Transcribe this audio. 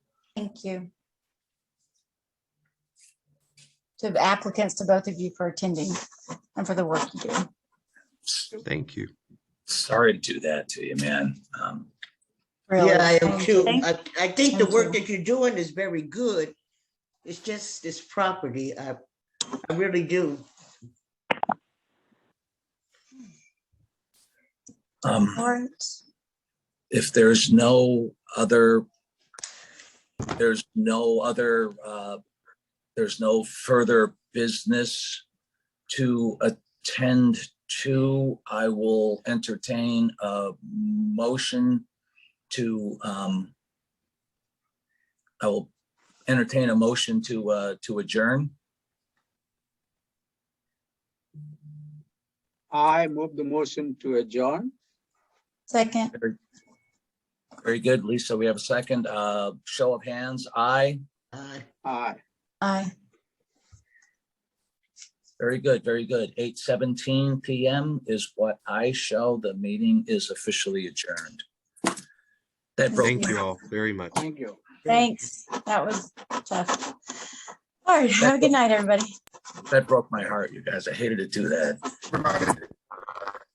Thank you. To the applicants, to both of you for attending and for the work you do. Thank you. Sorry to do that to you, man. Um, Really. Yeah, I am Thank too. you. I, I think the Thank work you. that you're doing is very good. It's just this property, I, I really do. um, All right. if there's no other, there's no other, uh, there's no further business to attend to, I will entertain a motion to, um, I will entertain a motion to, uh, to adjourn. I move the motion to adjourn. Second, Very good, Lisa. We have a second. Uh, show of hands, aye. Uh, Aye. aye. Very good, very good. Eight seventeen PM is what I show. The meeting is officially adjourned. That broke, Thank you all very much. Thank you. Thanks. That was tough. All right. Have a good night, everybody. that broke my heart, you guys. I hated to do that.